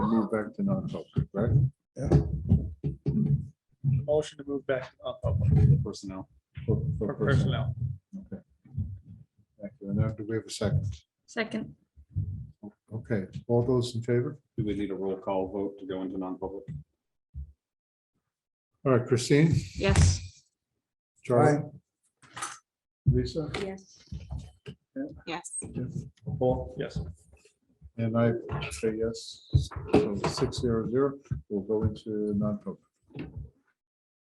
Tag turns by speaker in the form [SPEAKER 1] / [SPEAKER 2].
[SPEAKER 1] move back to non-public, right?
[SPEAKER 2] Motion to move back up, up
[SPEAKER 1] Personnel. For-
[SPEAKER 2] for
[SPEAKER 1] For personnel.
[SPEAKER 2] personnel.
[SPEAKER 1] Okay. Thank you. And now do we have a second?
[SPEAKER 3] Second,
[SPEAKER 1] Okay, all those in favor?
[SPEAKER 4] Do we need a roll call vote to go into non-public?
[SPEAKER 1] All right, Christine,
[SPEAKER 3] yes.
[SPEAKER 1] Charlie? Lisa?
[SPEAKER 3] Yes. Yes.
[SPEAKER 1] Paul?
[SPEAKER 2] Yes.
[SPEAKER 1] And I say yes, so six zero zero, we'll go into non-public.